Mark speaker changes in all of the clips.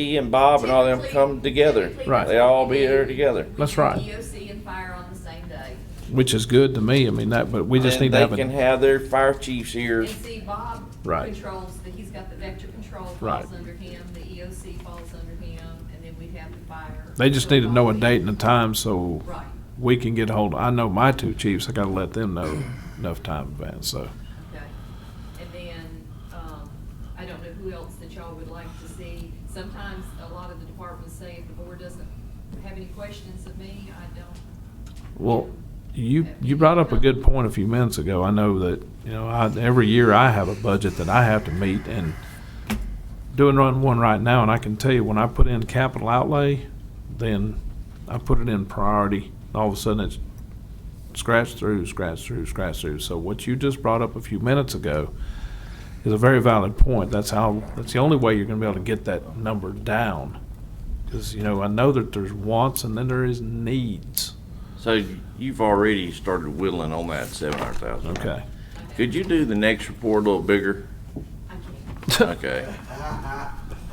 Speaker 1: he and Bob and all them come together.
Speaker 2: Right.
Speaker 1: They all be there together.
Speaker 2: That's right,
Speaker 3: EOC and fire on the same day.
Speaker 2: which is good to me. I mean, that, but we just
Speaker 1: And
Speaker 2: need to have
Speaker 1: They can
Speaker 2: a,
Speaker 1: have their fire chiefs here.
Speaker 3: And see, Bob
Speaker 2: Right.
Speaker 3: controls, the- he's got the vector control
Speaker 2: Right.
Speaker 3: falls under him, the EOC falls under him, and then we have the fire.
Speaker 2: they just need to know a date and a time so
Speaker 3: Right.
Speaker 2: we can get hold. I know my two chiefs, I gotta let them know enough time in advance, so.
Speaker 3: Okay. And then, um, I don't know who else that y'all would like to see. Sometimes a lot of the departments say if the board doesn't have any questions of me, I don't.
Speaker 2: Well, you, you brought up a good point a few minutes ago. I know that, you know, I, every year I have a budget that I have to meet and doing run one right now, and I can tell you, when I put in capital outlay, then I put it in priority. All of a sudden, it's scratch through, scratch through, scratch through. So what you just brought up a few minutes ago is a very valid point. That's how, that's the only way you're gonna be able to get that number down. Cause, you know, I know that there's wants and then there is needs.
Speaker 1: So you've already started whittling on that seven hundred thousand.
Speaker 2: Okay.
Speaker 1: Could you do the next report a little bigger?
Speaker 3: I can't.
Speaker 1: Okay.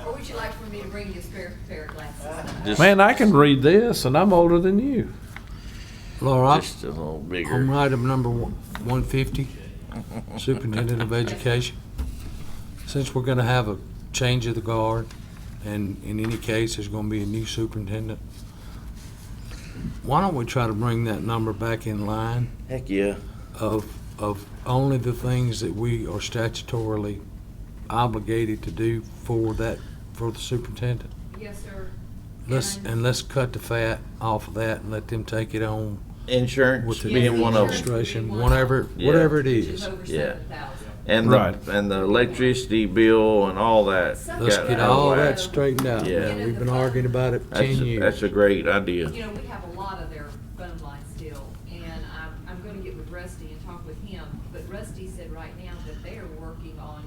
Speaker 3: Or would you like for me to bring you a spare pair of glasses?
Speaker 1: Just-
Speaker 2: Man, I can read this, and I'm older than you.
Speaker 4: Laura,
Speaker 1: Just a little
Speaker 4: on
Speaker 1: bigger.
Speaker 4: item number one- 150, Superintendent of Education. Since we're going to have a change of the guard, and in any case, there's going to be a new superintendent, why don't we try to bring that number back in line
Speaker 1: Heck, yeah.
Speaker 4: of, of only the things that we are statutorily obligated to do for that, for the superintendent?
Speaker 3: Yes, sir.
Speaker 4: Let's,
Speaker 3: And-
Speaker 4: and let's cut the fat off of that and let them take it on
Speaker 1: Insurance
Speaker 4: with the
Speaker 1: being one of them.
Speaker 4: administration, whatever,
Speaker 1: Yeah.
Speaker 4: whatever it
Speaker 3: Which
Speaker 4: is.
Speaker 3: is over
Speaker 1: Yeah.
Speaker 3: seven thousand.
Speaker 1: And the,
Speaker 2: Right.
Speaker 1: and the electricity bill and all that.
Speaker 4: Let's
Speaker 1: got
Speaker 4: get
Speaker 1: out of
Speaker 4: all
Speaker 1: whack.
Speaker 4: that straightened out.
Speaker 1: Yeah.
Speaker 4: man. We've been arguing about it for
Speaker 1: That's,
Speaker 4: ten
Speaker 1: a- that's
Speaker 4: years.
Speaker 1: a great idea.
Speaker 3: You know, we have a lot of their phone lines still, and I'm, I'm gonna get with Rusty and talk with him, but Rusty said right now that they are working on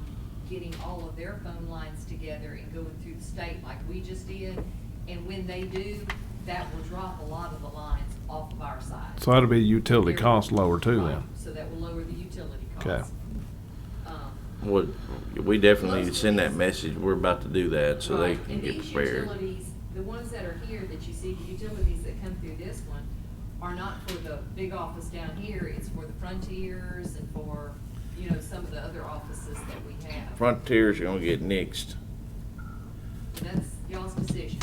Speaker 3: getting all of their phone lines together and going through the state like we just did, and when they do, that will drop a lot of the lines off of our side.
Speaker 2: So that'll be utility cost lower too
Speaker 3: Right,
Speaker 2: then.
Speaker 3: So that will lower the utility
Speaker 2: Okay.
Speaker 3: costs. Um,
Speaker 1: Would, we definitely need to send that message. We're about to do that so they
Speaker 3: Right,
Speaker 1: can
Speaker 3: and
Speaker 1: get
Speaker 3: these
Speaker 1: prepared.
Speaker 3: utilities, the ones that are here that you see, the utilities that come through this one are not for the big office down here, it's for the frontiers and for, you know, some of the other offices that we have.
Speaker 1: Frontier's gonna get nixed.
Speaker 3: That's y'all's decision.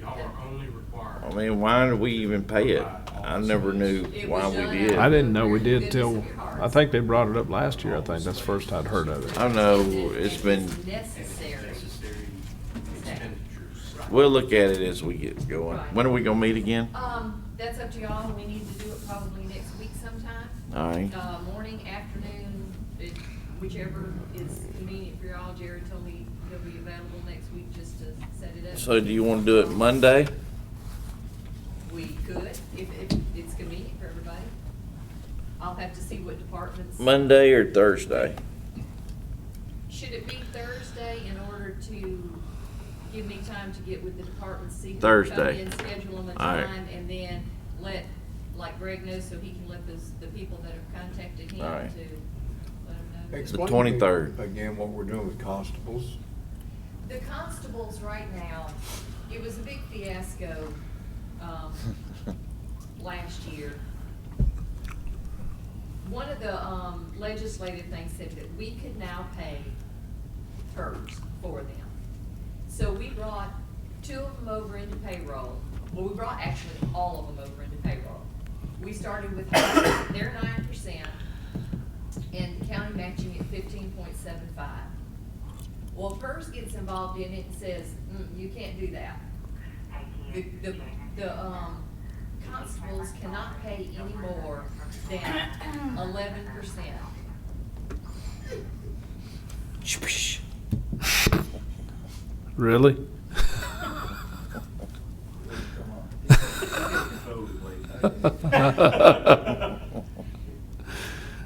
Speaker 5: Y'all are only
Speaker 1: I
Speaker 5: required.
Speaker 1: mean, why did we even pay it? I never knew
Speaker 3: It
Speaker 1: why
Speaker 3: was
Speaker 1: we
Speaker 3: done
Speaker 1: did.
Speaker 3: out
Speaker 2: I
Speaker 1: I
Speaker 3: of
Speaker 2: didn't know we
Speaker 3: the
Speaker 2: did till,
Speaker 3: goodness of your hearts.
Speaker 2: I think they brought it up last year, I think. That's the first I'd heard of it.
Speaker 1: don't know, Oh, it's been,
Speaker 3: Necessary.
Speaker 5: Necessary expenditures.
Speaker 1: we'll look at it as we get going. When are we gonna meet again?
Speaker 3: Um, that's up to y'all, we need to do it probably next week sometime.
Speaker 1: All right.
Speaker 3: Uh, morning, afternoon, it- whichever is convenient for y'all, Jared told me he'll be available next week just to set it up.
Speaker 1: So do you wanna do it Monday?
Speaker 3: We could, if, if it's convenient for everybody. I'll have to see what departments.
Speaker 1: Monday or Thursday?
Speaker 3: Should it be Thursday in order to give me time to get with the departments, see who can come
Speaker 1: Thursday.
Speaker 3: in, schedule them a
Speaker 1: All right.
Speaker 3: time, and then let, like Greg knows, so he can let those, the people that have contacted him to
Speaker 1: All
Speaker 3: let
Speaker 1: right.
Speaker 3: him know.
Speaker 6: Explain to me
Speaker 1: 23rd.
Speaker 6: Again, what we're doing with constables.
Speaker 3: The constables right now, it was a big fiasco, um, last year. One of the, um, legislative things said that we could now pay PERS for them. So we brought two of them over into payroll, well, we brought actually all of them over into payroll. We started with their nine percent and the county matching at fifteen point seven five. Well, PERS gets involved in it and says, mm, you can't do that. The, the, the, um, constables cannot pay any more than eleven percent.
Speaker 2: Really?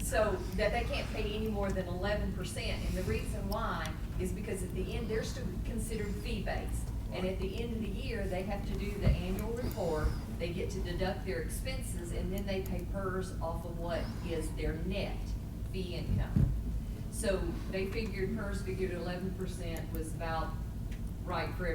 Speaker 3: So that they can't pay any more than eleven percent, and the reason why is because at the end, they're still considered fee-based. And at the end of the year, they have to do the annual report, they get to deduct their expenses, and then they pay PERS off of what is their net fee income. So they figured, PERS figured eleven percent was about right for